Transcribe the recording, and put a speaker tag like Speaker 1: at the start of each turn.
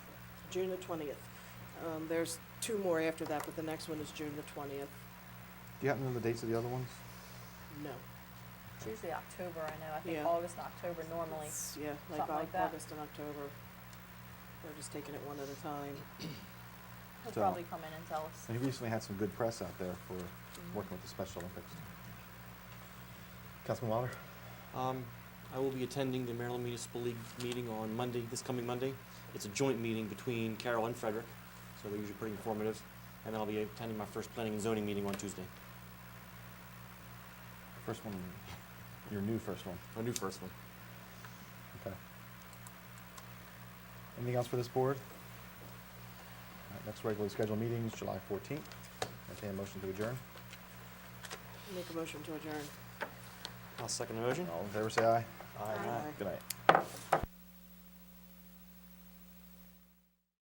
Speaker 1: June the twentieth. Um, there's two more after that, but the next one is June the twentieth.
Speaker 2: Do you happen to know the dates of the other ones?
Speaker 1: No.
Speaker 3: It's usually October, I know, I think
Speaker 1: Yeah.
Speaker 3: August and October normally.
Speaker 1: It's- Yeah, like
Speaker 3: Something like
Speaker 1: Au-
Speaker 3: that.
Speaker 1: August and October. They're just taking it one at a time.
Speaker 3: He'll
Speaker 2: So-
Speaker 3: probably come in and tell us.
Speaker 2: And he recently had some good press out there for working with the Special Olympics. Councilman Wilder?
Speaker 4: Um, I will be attending the Maryland Municipal League meeting on Monday, this coming Monday. It's a joint meeting between Carroll and Frederick, so they're usually pretty informative. And then I'll be attending my first planning and zoning meeting on Tuesday,
Speaker 2: First one, your new first one,
Speaker 4: my new first one.
Speaker 2: okay. Anything else for this board? All right, Next regularly scheduled meeting is July fourteenth. Entertained motion to adjourn.
Speaker 1: Make a motion to adjourn.
Speaker 4: I'll second the motion.
Speaker 2: All in favor, say aye.
Speaker 1: Aye.
Speaker 2: Good night.
Speaker 3: Aye.